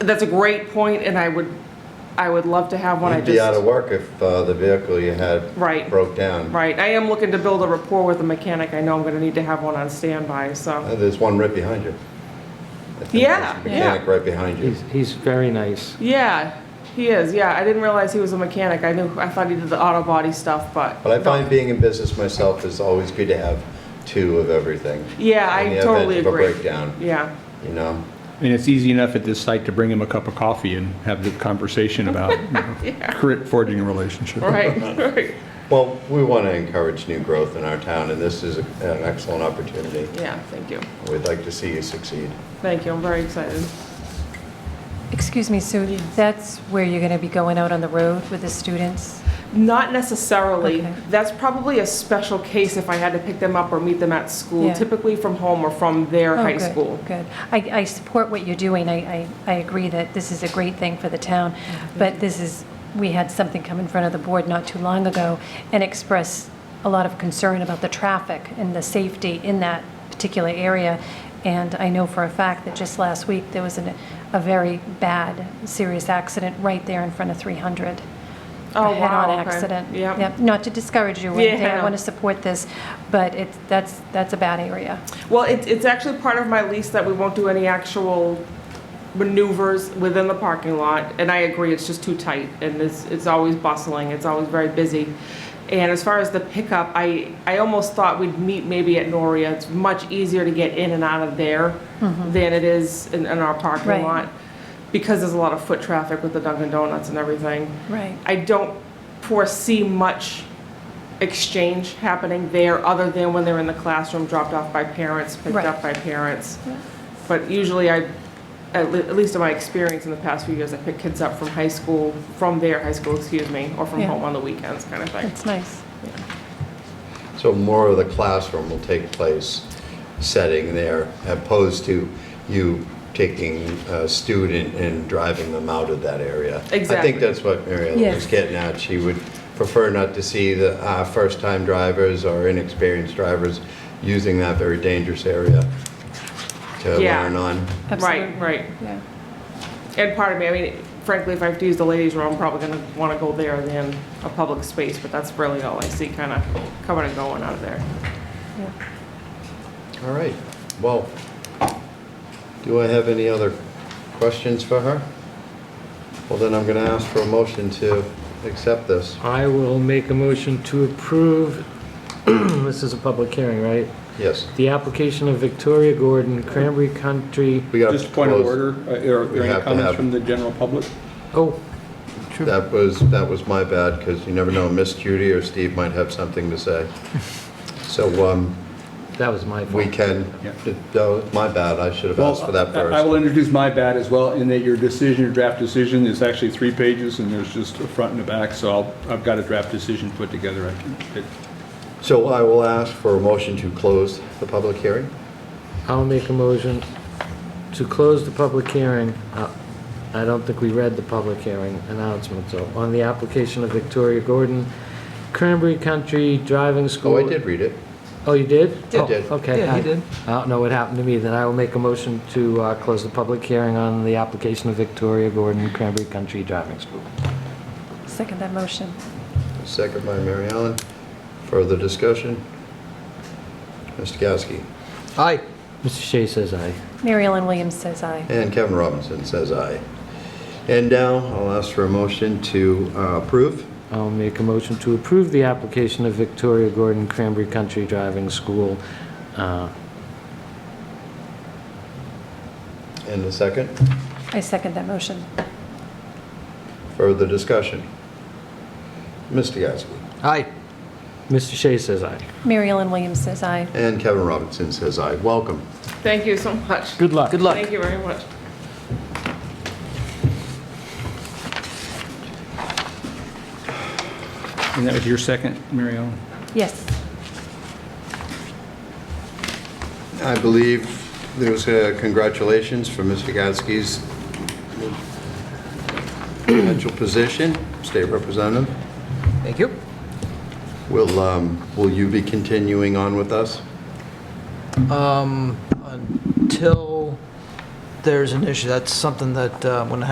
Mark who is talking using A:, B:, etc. A: That's a great point, and I would, I would love to have one. I
B: You'd be out of
A: just,
B: work if uh, the vehicle you had
A: Right.
B: broke down.
A: right, I am looking to build a rapport with a mechanic. I know I'm gonna need to have one on standby, so.
B: Uh, There's one right behind you. I think
A: Yeah,
B: there's a Mechanic right behind you.
C: He's, he's very nice.
A: Yeah, he is, yeah. I didn't realize he was a mechanic. I knew, I thought he did the auto body stuff, but.
B: But I find being in business myself is always good to have two of everything.
A: Yeah, I totally
B: In the event of a
A: agree.
B: breakdown,
A: Yeah,
B: you know?
D: And it's easy enough at this site to bring him a cup of coffee and have the conversation about you know, cre- forging a relationship.
A: right, right,
B: Well, we want to encourage new growth in our town, and this is a- an excellent opportunity.
A: yeah, thank you.
B: We'd like to see you succeed.
A: Thank you, I'm very excited.
E: Excuse me, so that's where you're going to be going out on the road with the students?
A: Not necessarily.
E: Okay.
A: That's probably a special case if I had to pick them up or meet them at school,
E: Yeah.
A: typically from home or from their
E: Oh,
A: high
E: good,
A: school.
E: Good. I, I support what you're doing. I, I, I agree that this is a great thing for the town, but this is, we had something come in front of the board not too long ago and express a lot of concern about the traffic and the safety in that particular area. And I know for a fact that just last week, there was an, a very bad, serious accident right there in front of 300.
A: Oh,
E: a head-on
A: wow, okay.
E: accident.
A: Yep.
E: Not to discourage you or
A: Yeah.
E: anything, I want to support this, but it's, that's, that's a bad area.
A: Well, it, it's actually part of my lease that we won't do any actual maneuvers within the parking lot, and I agree, it's just too tight, and it's, it's always bustling, it's always very busy. And as far as the pickup, I, I almost thought we'd meet maybe at Noria, it's much easier to get in and out of there than it is in, in our parking
E: Right.
A: lot, because there's a lot of foot traffic with the Dunkin' Donuts and everything.
E: Right.
A: I don't foresee much exchange happening there, other than when they're in the classroom, dropped off by parents, picked
E: Right.
A: up by parents. But usually I, at le- at least in my experience in the past few years, I pick kids up from high school, from their high school, excuse me, or from
E: Yeah.
A: home on the weekends, kind of thing.
E: That's nice.
B: So more of the classroom will take place setting there, opposed to you taking a student and driving them out of that area. I
A: Exactly.
B: think that's what Mary Ellen was
E: Yes.
B: getting at. She would prefer not to see the uh, first-time drivers or inexperienced drivers using that very dangerous area to
A: Yeah.
B: learn on.
E: Absolutely.
A: Right, right.
E: Yeah.
A: And part of me, I mean, frankly, if I have to use the ladies' room, I'm probably gonna wanna go there than a public space, but that's really all I see kind of coming and going out of there.
B: All right, well, do I have any other questions for her? Well, then I'm going to ask for a motion to accept this.
C: I will make a motion to approve, this is a public hearing, right?
B: Yes.
C: The application of Victoria Gordon, Cranberry Country,
B: We got
D: Just point of
B: closed.
D: order, uh, are
B: We have
D: there any
B: to
D: comments
B: have-
D: from the general public?
C: oh,
B: That was, that was my bad, because you never know, Miss Judy or Steve might have something to say. So um,
C: that was my
B: we
C: fault.
B: can,
D: Yeah.
B: that was my bad, I should have asked for that
D: Well, I- I
B: first.
D: will introduce my bad as well, in that your decision, your draft decision is actually three pages, and there's just a front and a back, so I'll, I've got a draft decision put together. I can, it-
B: So I will ask for a motion to close the public hearing.
C: I'll make a motion to close the public hearing. Uh, I don't think we read the public hearing announcement, so, on the application of Victoria Gordon, Cranberry Country Driving School.
B: Oh, I did read it.
C: Oh, you did?
B: Did.
C: Oh,
B: Did.
C: Okay.
F: Yeah, he
C: I-
F: did.
C: I don't know what happened to me, then I will make a motion to uh, close the public hearing on the application of Victoria Gordon Cranberry Country Driving School.
E: Second that motion.
B: Second by Mary Ellen. Further discussion? Mr. Gasky.
F: Aye.
C: Mr. Shea says aye.
E: Mary Ellen Williams says aye.
B: And Kevin Robinson says aye. And now I'll ask for a motion to uh, approve.
C: I'll make a motion to approve the application of Victoria Gordon Cranberry Country Driving School. Uh,
B: And a second,
E: I second that motion.
B: further discussion? Mr. Gasky.
F: Aye.
C: Mr. Shea says aye.
E: Mary Ellen Williams says aye.
B: And Kevin Robinson says aye. Welcome.
A: Thank you so much.
C: Good luck.
F: Good luck.
A: Thank you very much.
D: And that was your second, Mary Ellen?
E: Yes.
B: I believe there was a congratulations for Mr. Gasky's potential position, state representative.
F: Thank you.
B: Will, um, will you be continuing on with us?
F: Um, until there's an issue, that's something that, uh, when